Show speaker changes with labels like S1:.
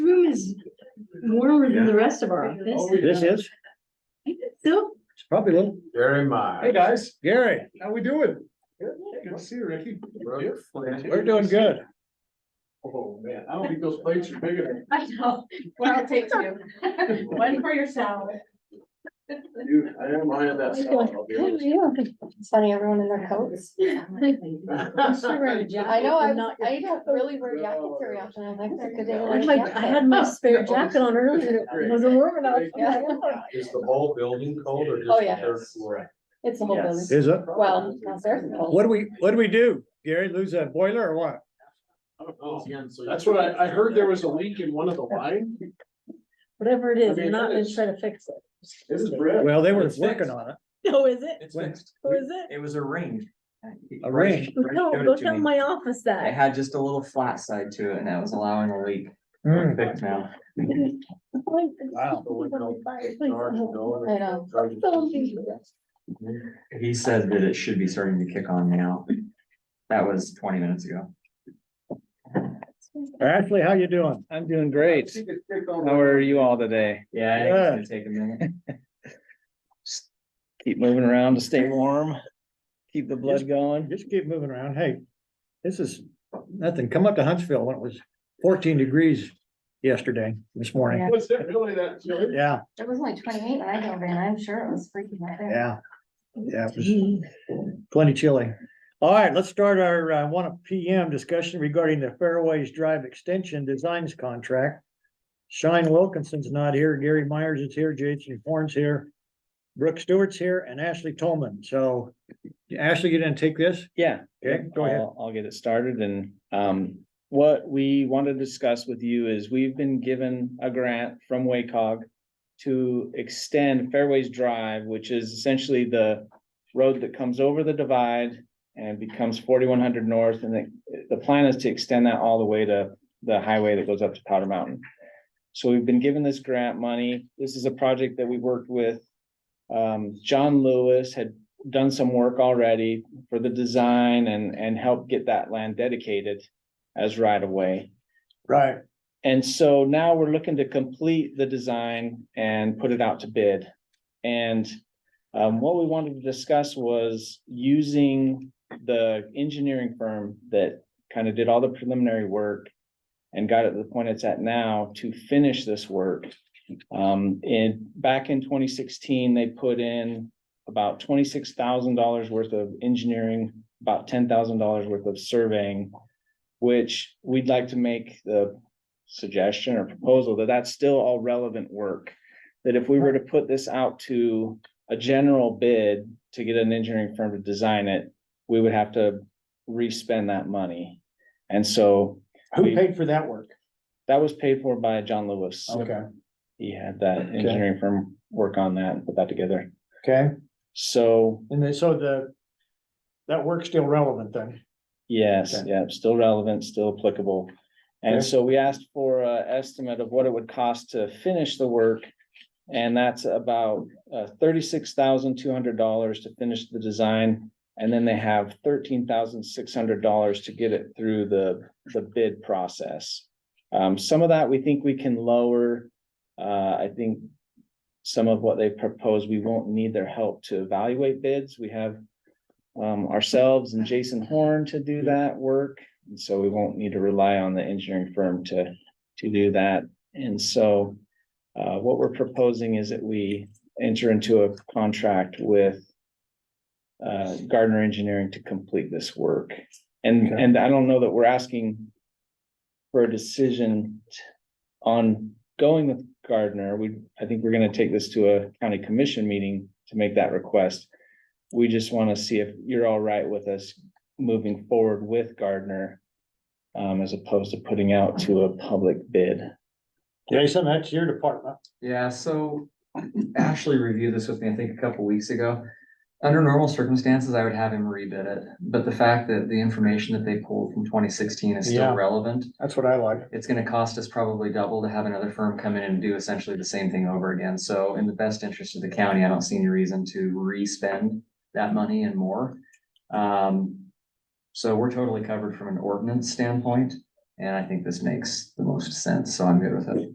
S1: warmer than the
S2: Yeah.
S1: rest of our office.
S2: Oh, yeah.
S3: This is,
S1: So,
S3: it's probably a little,
S4: Very much.
S2: Hey, guys,
S3: Gary,
S2: how we doing? Good to see you, Ricky.
S3: we're doing good.
S2: Oh, man, I don't think those plates are big enough.
S5: I know, well, I'll take two. One for yourself.
S2: Dude, I am high on that stuff, I'll be honest.
S6: Sending everyone in their coats.
S1: I wear a jacket,
S6: I know,
S1: but
S6: I,
S1: not your-
S6: I don't really wear jackets very often, I like that, cause they
S1: I
S6: don't
S1: had
S6: like
S1: my- I had my spare jacket on earlier, and it wasn't warm enough.
S6: Yeah.
S4: Is the whole building cold or just?
S6: Oh,
S4: the
S6: yeah.
S4: third floor?
S6: It's the whole building.
S3: Is it?
S6: Well, downstairs. it's cold.
S3: What do we, what do we do? Gary, lose that boiler or what?
S2: Oh, That's what I, I heard there was a leak in one of the line.
S1: Whatever it is,
S2: I
S1: we're
S2: mean,
S1: not
S2: that
S1: gonna
S2: is-
S1: try to fix it.
S2: This is Brett.
S3: Well, they were
S4: It's
S3: working
S4: fixed.
S3: on it.
S7: Oh,
S1: No, is it?
S4: It's fixed.
S1: Or is it?
S7: It was a ring.
S3: A ring?
S1: No,
S7: Showed
S1: go
S7: it to
S1: tell
S7: me.
S1: my office
S7: It
S1: that.
S7: had just a little flat side to it and that was allowing a leak.
S3: Hmm,
S7: Fixed now.
S3: Wow.
S6: uh, I know.
S7: He said that it should be starting to kick on now. That was twenty minutes ago.
S3: Ashley, how you doing?
S8: I'm doing great. How are you all today?
S7: Yeah, I think it's gonna take a minute.
S8: Keep moving around to stay warm. Keep the blood going.
S3: Just keep moving around. Hey, this is nothing. Come up to Huntsville when it was fourteen degrees yesterday, this morning.
S2: Was it really that chilly?
S3: Yeah,
S6: It was only twenty-eight when I drove in, I'm sure it was freaking out there.
S3: yeah. Yeah, it was plenty chilly. All right, let's start our uh, one P M discussion regarding the Fairways Drive Extension Designs Contract. Shine Wilkinson's not here, Gary Myers is here, Jason Horn's here, Brooke Stewart's here, and Ashley Tolman. So Ashley, you didn't take this?
S8: Yeah.
S3: Okay, go ahead.
S8: I'll, I'll get it started and, um, what we want to discuss with you is we've been given a grant from WACOG to extend Fairways Drive, which is essentially the road that comes over the divide and becomes forty-one hundred north, and the, the plan is to extend that all the way to the highway that goes up to Powder Mountain. So we've been given this grant money. This is a project that we worked with. Um, John Lewis had done some work already for the design and, and help get that land dedicated as right of way.
S3: Right.
S8: And so now we're looking to complete the design and put it out to bid. And um, what we wanted to discuss was using the engineering firm that kind of did all the preliminary work and got it to the point it's at now to finish this work. Um, in, back in twenty sixteen, they put in about twenty-six thousand dollars worth of engineering, about ten thousand dollars worth of surveying, which we'd like to make the suggestion or proposal that that's still all relevant work. That if we were to put this out to a general bid to get an engineering firm to design it, we would have to re-spend that money. And so
S3: Who paid for that work?
S8: that was paid for by John Lewis.
S3: Okay,
S8: He had that engineering firm work on that and put that together.
S3: okay.
S8: So,
S3: And then, so the, that work's still relevant then?
S8: yes,
S3: Okay.
S8: yeah, still relevant, still applicable. And
S3: Okay.
S8: so we asked for a estimate of what it would cost to finish the work. And that's about uh thirty-six thousand two hundred dollars to finish the design. And then they have thirteen thousand six hundred dollars to get it through the the bid process. Um, some of that we think we can lower. Uh, I think some of what they propose, we won't need their help to evaluate bids. We have um ourselves and Jason Horn to do that work. And so we won't need to rely on the engineering firm to to do that. And so uh, what we're proposing is that we enter into a contract with uh, Gardner Engineering to complete this work. And,
S3: Okay.
S8: and I don't know that we're asking for a decision t- on going with Gardner. We, I think we're gonna take this to a county commission meeting to make that request. We just wanna see if you're all right with us moving forward with Gardner um, as opposed to putting out to a public bid.
S3: Jason, that's your department.
S7: Yeah, so Ashley reviewed this with me, I think, a couple weeks ago. Under normal circumstances, I would have him rebid it, but the fact that the information that they pulled from twenty sixteen is
S3: Yeah.
S7: still relevant.
S3: That's what I like.
S7: It's gonna cost us probably double to have another firm come in and do essentially the same thing over again. So in the best interest of the county, I don't see any reason to re-spend that money and more. Um, so we're totally covered from an ordinance standpoint, and I think this makes the most sense, so I'm good with it.